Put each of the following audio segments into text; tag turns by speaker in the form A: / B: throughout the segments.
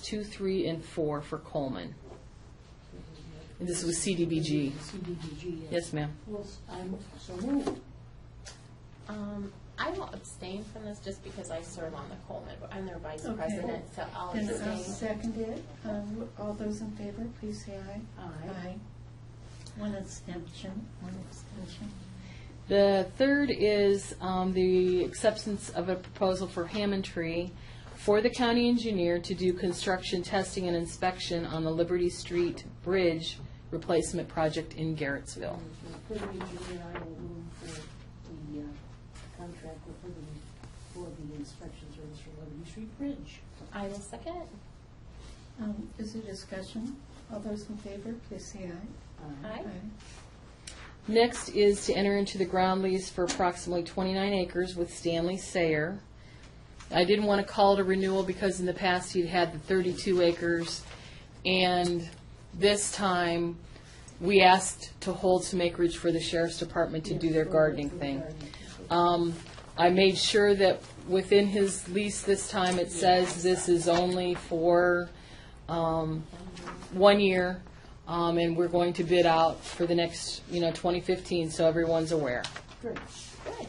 A: two, three, and four for Coleman. And this was CDBG.
B: CDBG, yes.
A: Yes, ma'am.
B: Well, I'm so moved.
C: Um, I will abstain from this just because I serve on the Coleman, but I'm their vice
D: Okay.
C: president, so I'll
D: Then I'll
C: abstain.
D: second it. Um, All those in favor, please say aye.
B: Aye.
D: One abstention, one abstention.
A: The third is um, the acceptance of a proposal for Hammond Tree for the county engineer to do construction testing and inspection on the Liberty Street Bridge replacement project in Garrettsville.
B: For the engineer, I will move for the uh, contract with Liberty for the inspection service for Liberty Street Bridge.
C: I will second.
D: Um, Is there discussion? All those in favor, please say aye.
B: Uh,
C: Aye.
A: Next is to enter into the ground lease for approximately 29 acres with Stanley Sayer. I didn't want to call it a renewal because in the past he'd had the 32 acres, and this time, we asked to hold some acreage for the sheriff's department to do their gardening thing. Um, I made sure that within his lease this time, it says this is only for um, one year, um, and we're going to bid out for the next, you know, 2015, so everyone's aware.
B: Good, good.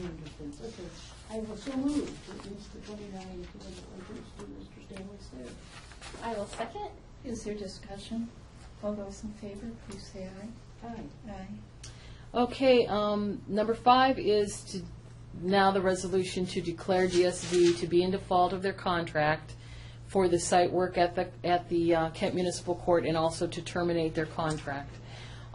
B: Wonderful. Okay, I will so move to use the twenty-nine equivalent acres for Mr. Stanley Sayre.
C: I will second.
D: Is there discussion? All those in favor, please say aye.
B: Aye.
D: Aye.
A: Okay, um, number five is to, now the resolution to declare DSV to be in default of their contract for the site work at the, at the uh, Kent Municipal Court and also to terminate their contract.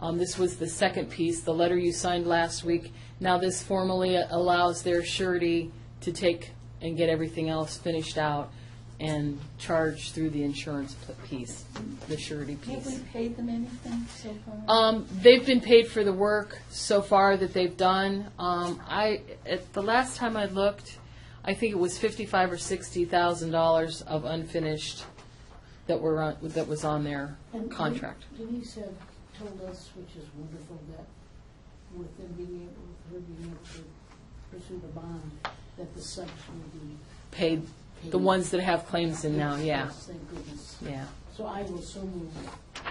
A: Um, this was the second piece, the letter you signed last week. Now this formally allows their surety to take and get everything else finished out and charge through the insurance p- piece, the surety
D: Have
A: piece.
D: we paid them anything so far?
A: Um, they've been paid for the work so far that they've done. Um, I, at the last time I looked, I think it was fifty-five or sixty thousand dollars of unfinished that were on, that was on their
B: And
A: contract.
B: Denise had told us, which is wonderful, that with them being able, with her being able to pursue the bond, that the subs will be
A: Paid,
B: paid.
A: the ones that have claims in now,
B: Yes,
A: yeah,
B: yes, Thank goodness.
A: yeah.
B: So I will so move, uh,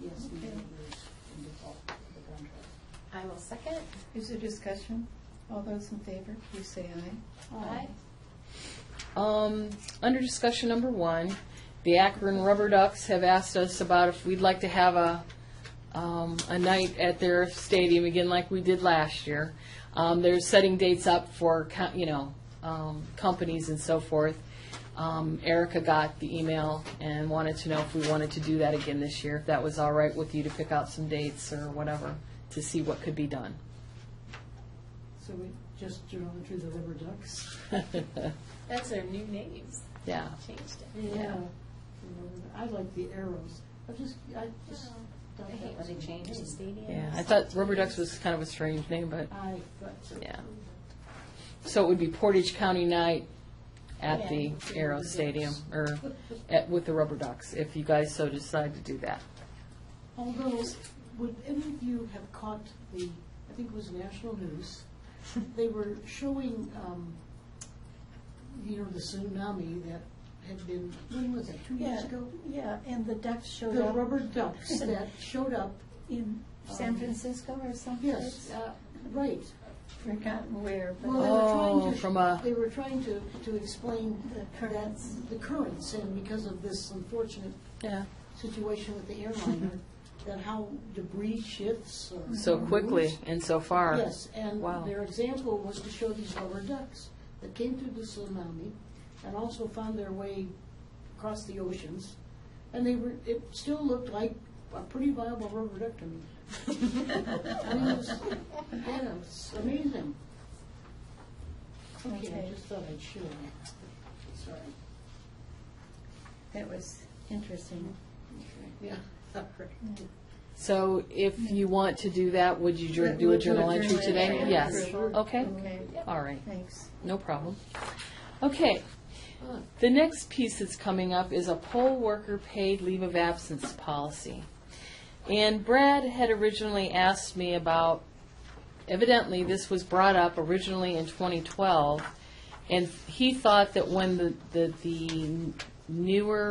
B: yes, the
D: Okay.
B: members in default of the contract.
C: I will second.
D: Is there discussion? All those in favor, please say aye.
C: Aye.
A: Um, under discussion number one, the Akron Rubber Ducks have asked us about if we'd like to have a, um, a night at their stadium again like we did last year. Um, they're setting dates up for, co- you know, um, companies and so forth. Um, Erica got the email and wanted to know if we wanted to do that again this year, if that was all right with you to pick out some dates or whatever, to see what could be done.
B: So we just turn over to the rubber ducks?
C: That's their new names.
A: Yeah.
C: Changed it.
B: Yeah. I like the arrows. I just, I just. thought
C: Uh-huh. I hate
B: that
C: when
B: was
C: they
B: a
C: change the
B: name.
C: stadium.
A: Yeah, I thought Rubber Ducks was kind of a strange name, but.
B: I thought so.
A: Yeah. So it would be Portage County Night at the
C: Yeah.
A: Aero Stadium, or at, with the Rubber Ducks, if you guys so decide to do that.
B: Although, would any of you have caught the, I think it was national news, they were showing, um, you know, the tsunami that had been, when was it, two years ago?
D: yeah, and the ducks showed
B: The rubber ducks that showed up,
D: in San Francisco or
B: yes,
D: someplace.
B: uh, right.
D: Forgotten where, but.
B: Well, they were trying to
A: Oh,
B: sh-
A: from a-
B: They were trying to, to explain the currents, the currents, and because of this unfortunate
A: Yeah.
B: situation with the airliner, that how debris shifts or.
A: So quickly
B: moves.
A: and so far.
B: Mm-hmm. Yes, and
A: Wow.
B: their example was to show these rubber ducks that came through the tsunami and also found their way across the oceans. And they were, it still looked like a pretty viable rubber duck to me. I mean, it was, yeah, it was amazing. Okay, I
D: Okay.
B: just thought I'd share that. Sorry.
D: That was interesting.
B: Yeah.
A: So if you want to do that, would you jour- do a
D: Would you
A: journal
D: do a
A: entry
D: journal
A: today?
D: entry?
A: Yes. Oh,
B: Sure.
A: Okay,
D: Okay,
A: all right,
D: thanks.
A: no problem. Okay, The next piece that's coming up is a poll worker paid leave of absence policy. And Brad had originally asked me about, evidently, this was brought up originally in 2012, and he thought that when the, the, the newer